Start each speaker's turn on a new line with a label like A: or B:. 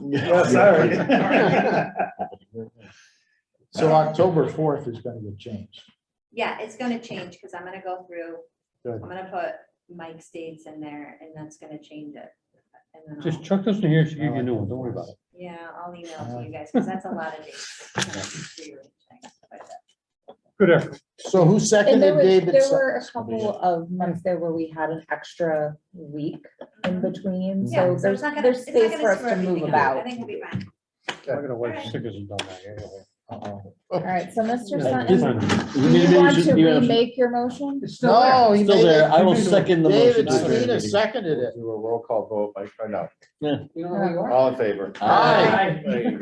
A: Yeah, sorry.
B: So October fourth is gonna get changed.
C: Yeah, it's gonna change, because I'm gonna go through,
B: Good.
C: I'm gonna put Mike's dates in there, and that's gonna change it. And then
D: Just
C: I'll-
D: chuck this in here, she give you a new one, don't worry about it.
C: Yeah, I'll email to you guys, because that's a lot of dates. I'm gonna rearrange things, but, uh,
D: Good effort.
B: So who
E: And there
B: seconded
E: was,
B: David's?
E: there were a couple of months there where we had an extra week in between,
C: Mm-hmm. Yeah,
E: so
C: so
E: there's,
C: it's not gonna, it's
E: there's
C: not
E: space
C: gonna
E: for us
C: screw
E: to
C: everything
E: move
C: up. I
E: about.
C: think we'll be fine.
D: I'm gonna wipe
C: Alright.
D: stickers and done that. anyway.
B: Uh-oh.
E: All right, so Mr.
F: Yeah,
E: Sutton,
F: different.
E: do you want to remake your motion?
G: It's still there.
B: No, he
F: Still
B: made
F: there. I
B: it.
F: will second the motion.
B: David
F: Not very
B: Sweeney
F: good.
B: seconded it.
A: Do a roll call vote, like, or no,
F: Yeah.
E: Uh,
A: all in favor?
F: Aye.
G: Aye.